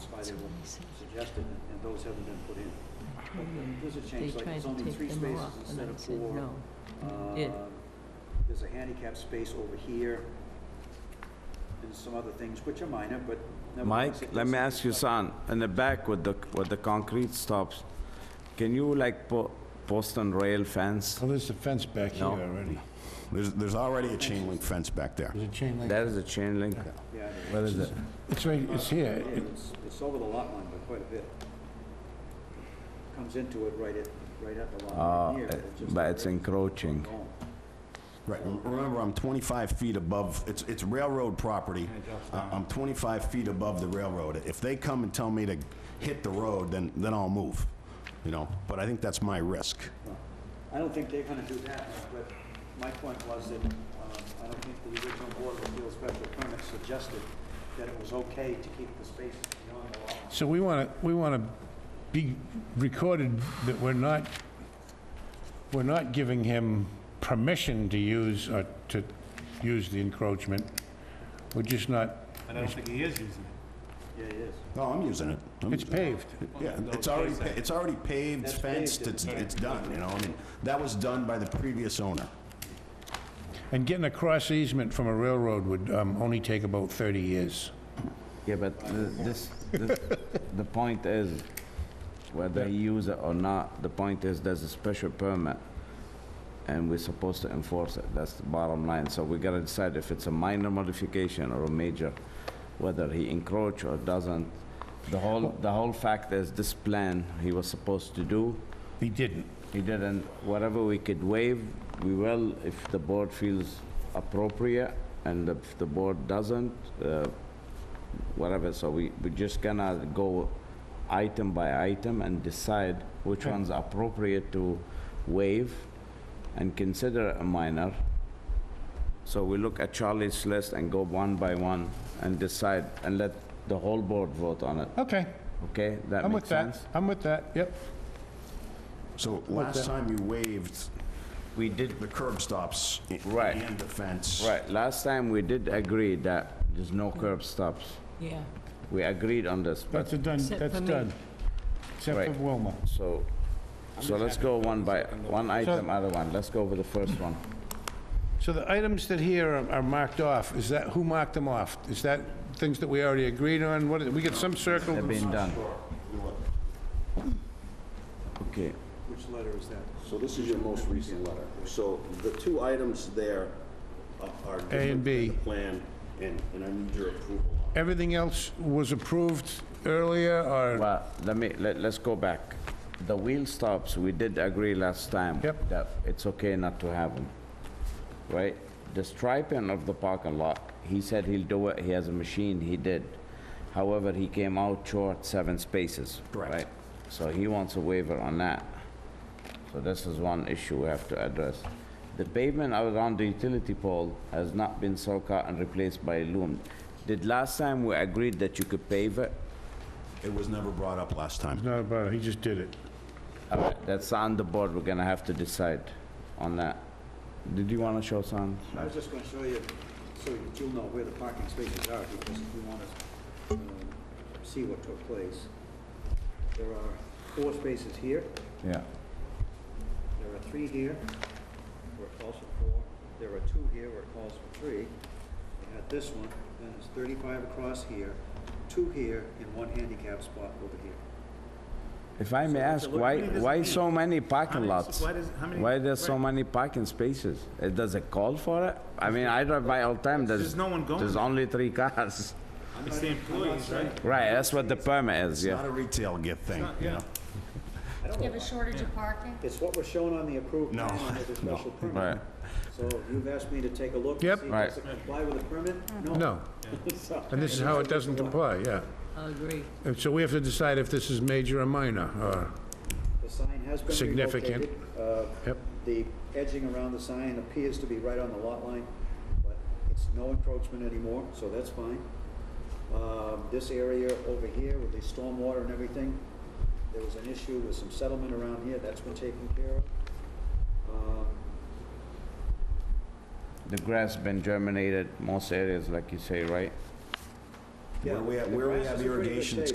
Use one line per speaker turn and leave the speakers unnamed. I have suggested, and- and those haven't been put in. But There's a
They
change, like
tried
it's
to
only three
take them
spaces
off, and
instead
I
of
said,
four.
no.
Uh,
Yeah.
There's a handicap space over here, and some other things, which are minor, but
Mike,
nevertheless. it
let me
does-
ask you, son, in the back with the, with the concrete stops, can you like po- post and rail fence?
Well, there's a fence back here
No.
already.
There's, there's already a chain link fence back there.
There's a chain link.
There is a chain link.
Yeah, it is.
Where is it?
It's right, it's here.
Yeah, it's, it's over the lot line by quite a bit. Comes into it right at, right at the lot
Uh,
line here.
it-
it's just
but
a
it's
rail.
encroaching.
Oh.
Right, rem- remember, I'm 25 feet above, it's, it's railroad property. I- I'm 25 feet above the railroad. If they come and tell me to hit the road, then, then I'll move, you know? But I think that's my risk.
I don't think they're gonna do that, but my point was that, um, I don't think the original Board of Appeals special permit suggested that it was okay to keep the spaces beyond the lot. line.
So we want to, we want to be recorded that we're not, we're not giving him permission to use, or to use the encroachment. We're just not,
But I don't think he is using it.
Yeah, it is.
No, Oh, I'm using it. I'm
it's
using it.
paved.
Yeah, it's already, pa- it's already paved,
That's
fenced,
paved,
it's, it's done, you know? I mean, that was done by the previous owner.
And getting a cross easement from a railroad would um, only take about 30 years.
Yeah, but th- this, this- the point is, whether he use it or not, the point is, there's a special permit, and we're supposed to enforce it, that's the bottom line. So we gotta decide if it's a minor modification or a major, whether he encroach or doesn't. The whole, the whole fact is, this plan he was supposed to do,
He didn't.
he didn't, whatever we could waive, we will, if the board feels appropriate, and if the board doesn't, uh, whatever, so we, we just gonna go item by item and decide which one's appropriate to waive and consider a minor. So we look at Charlie's list and go one by one and decide, and let the whole board vote on it,
Okay,
okay? That
I'm with
makes
that.
sense?
I'm with that, yep.
So last time you waived
We did
the curb stops i-
Right.
and the fence.
Right, last time we did agree that there's no curb stops.
Yeah,
We agreed on this,
That's
but,
a done,
Except
that's
for me.
done. Except for
Right.
Wilma.
so, so let's go one by, one item, other one. Let's go with the first one.
So the items that here are- are marked off, is that, who marked them off? Is that things that we already agreed on? What, we get some
They've
circled?
been done. Okay,
Which letter is that?
So this is your most recent letter. So the two items there are- are. different
and B.
than the Plan, and, and I need your approval on.
Everything else was approved earlier, or,
well, let me, let, let's go back. The wheel stops, we did agree last time.
Yep.
That it's okay not to have them, right? The striping of the parking lot, he said he'll do it, he has a machine, he did. However, he came out short seven spaces.
Correct.
right? So he wants a waiver on that. So this is one issue we have to address. The pavement around the utility pole has not been soak out and replaced by loom. Did last time we agreed that you could pave it?
It was never brought up last time.
no, but he just did it.
All right, that's on the board, we're gonna have to decide on that. Did you wanna show some?
I was just gonna show you, so that you'll know where the parking spaces are, because if you wanna, um, see what took place. There are four spaces here,
Yeah.
there are three here, where it calls for four, there are two here where it calls for three. We had this one, then there's thirty-five across here, two here, and one handicap spot over here.
If I may ask, why, why so many parking lots? Why there's so many parking spaces? Uh, Does it call for it? I mean, I drive by all the time, there's...
There's no one going
There's
there.
only three cars.
It's the employees, right?
Right, that's what the permit is,
It's
yeah.
not a retail gift thing, you know?
I don't
Do
know
you have a shortage of parking?
It's what was shown on the approved
No,
plan under the
no.
special permit.
Right.
So you've asked me to take a look. to
Yep.
see,
Right.
Does it comply with the permit? No.
No,
So-
and this is how it doesn't comply, yeah.
I agree.
And so we have to decide if this is major or minor, or,
The sign has been
Significant.
relocated. Uh,
yep.
The edging around the sign appears to be right on the lot line, but it's no encroachment anymore, so that's fine. Um, This area over here with the stormwater and everything, there was an issue with some settlement around here, that's been taken care of. Um,
The grass been germinated most areas, like you say, right?
yeah,
Where we have-
the
where we
grass
have
is in pretty good
irrigation, it's
shape.